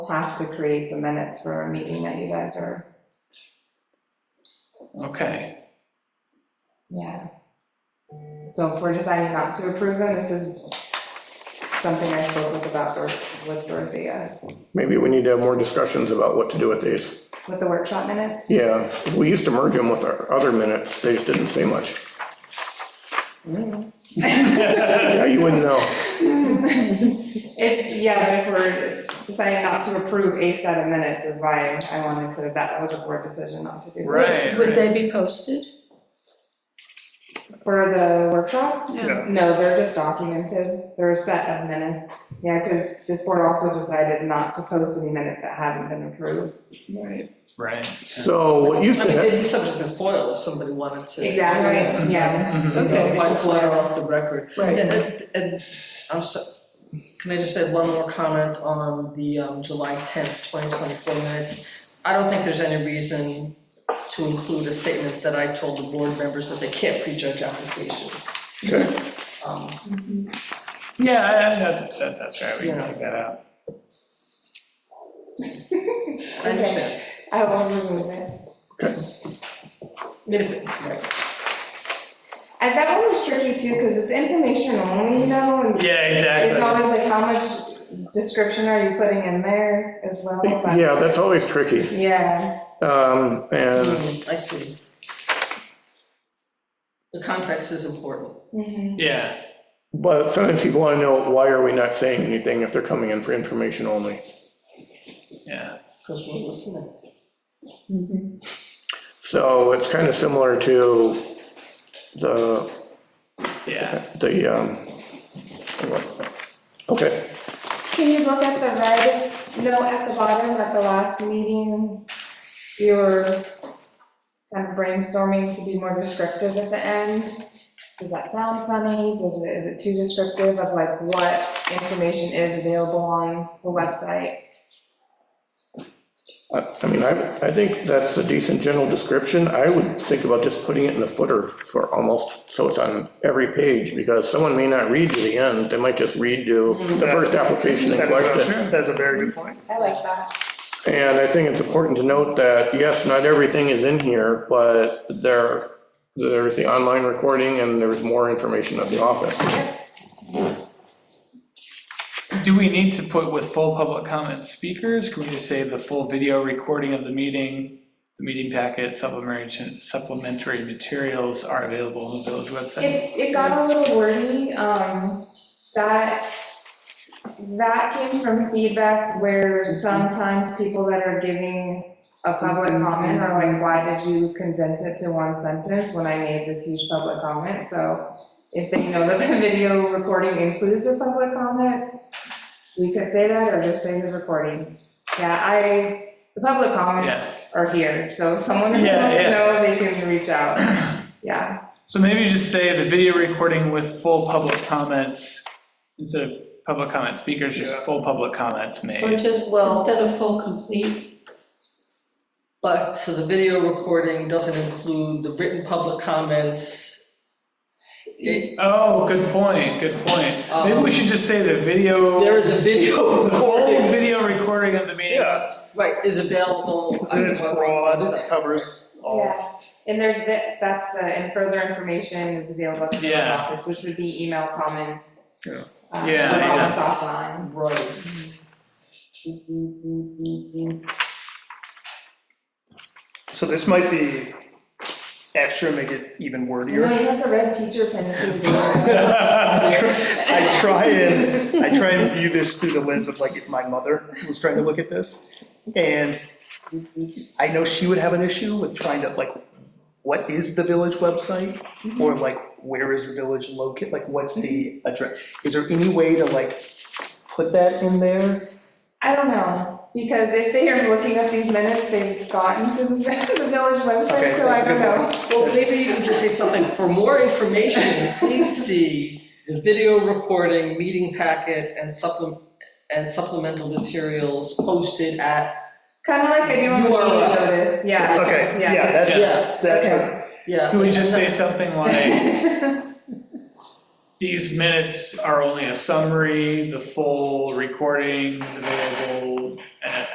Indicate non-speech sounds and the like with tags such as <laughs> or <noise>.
have to create the minutes for a meeting that you guys are, Okay, yeah. So if we're deciding not to approve them, this is something I spoke with about, Dor- with Dorothea, Maybe we need to have more discussions about what to do with these. with the workshop minutes. Yeah, we used to merge them with our other minutes, they just didn't say much. Mm. Yeah, you wouldn't know. <laughs> It's, yeah, but if we're deciding not to approve a set of minutes is why I wanted to, that was a board decision not to do. that. right, Would right. they be posted? For the workshop? Yeah. No, they're just documented, they're a set of minutes. Yeah, because this board also decided not to post any minutes that hadn't been approved. Right. Right. So what used I to mean, happen, they'd be subject to foil if somebody wanted to. Exactly, yeah. Mm-hmm. Mhm. Okay. Why foil off the record? Right. And, it- and, I'm so, can I just add one more comment on the um, July 10th, 2024 minutes? I don't think there's any reason to include a statement that I told the board members that they can't prejudge applications. Okay. Um, Yeah, I- I- that, that, that's right, we can take that out. I understand. I will remove it. I mean, if- right. And that one was tricky too, because it's information only, you know, and Yeah, it's exactly. always like, how much description are you putting in there as well? but- yeah, that's always tricky. Yeah, Um, And Hmm, I see. The context is important. mhm, Yeah, But sometimes people want to know, why are we not saying anything if they're coming in for information only? yeah. Because we're listening. Mhm. So it's kind of similar to the, Yeah, the, um, okay, Can you look at the red note at the bottom at the last meeting? We were kind of brainstorming to be more descriptive at the end. Does that sound funny? Does it, is it too descriptive of like what information is available on the website? I I mean, I, I think that's a decent general description. I would think about just putting it in the footer for almost, so it's on every page, because someone may not read to the end, they might just read to the first application in That is- question. Mm-hmm. That's a very good point. I like that. And I think it's important to note that, yes, not everything is in here, but there, there's the online recording and there's more information at the office. do we need to put with full public comment speakers? Can we just say the full video recording of the meeting, the meeting packet, supplementary, supplementary materials are available on the village website? It, it got a little wordy, um, that, that came from feedback where Mm-hmm. sometimes people that are giving a public Mm-hmm. comment are like, why did you condense it to one sentence when I made this huge public comment? So if they know that the <laughs> video recording includes the public comment, we could say that or just say the recording. Yeah, I, the public comments are here, so if someone who Yeah, wants to yeah. know, they can reach <coughs> out, yeah. So maybe just say the video recording with full public comments, instead of public comment speakers, just Yeah. full public comments Or made. just, Well- instead of full complete, But, so the video recording doesn't include the written public comments. It- Oh, good point, good point. Maybe we should just say the video. Um, There is a video <laughs> The whole recording, video recording of the meeting. <laughs> Yeah, right, is available. because on then it's the broad, website. it covers all. Yeah, and there's, that- that's the, and further information is available at the village Yeah. office, which would be email comments. Yeah. um, Yeah, I Comments guess. <laughs> offline. Right. So this might be extra, make it even You know, wordier. you have the red teacher pen too. <laughs> I try and, I try and view this through the lens of like if my mother was trying to look at this. And I know she would have an issue with trying to like, what is the village website? Or like, where is the village located? Like, what's the address? Is there any way to like put that in there? I don't know, because if they are looking up these minutes, they've gotten to the <laughs> the village website, Okay, so I that's a don't good know. Well, maybe you can just say something, for more information, please see the video recording, meeting packet, and supplem- and supplemental materials posted at, Kind of like I do on the You are meeting right. notice, yeah. Okay, yeah, that's, yeah, that's. Okay. yeah. Can we just say something like, <laughs> Yeah. these minutes are only a summary, the full recordings available and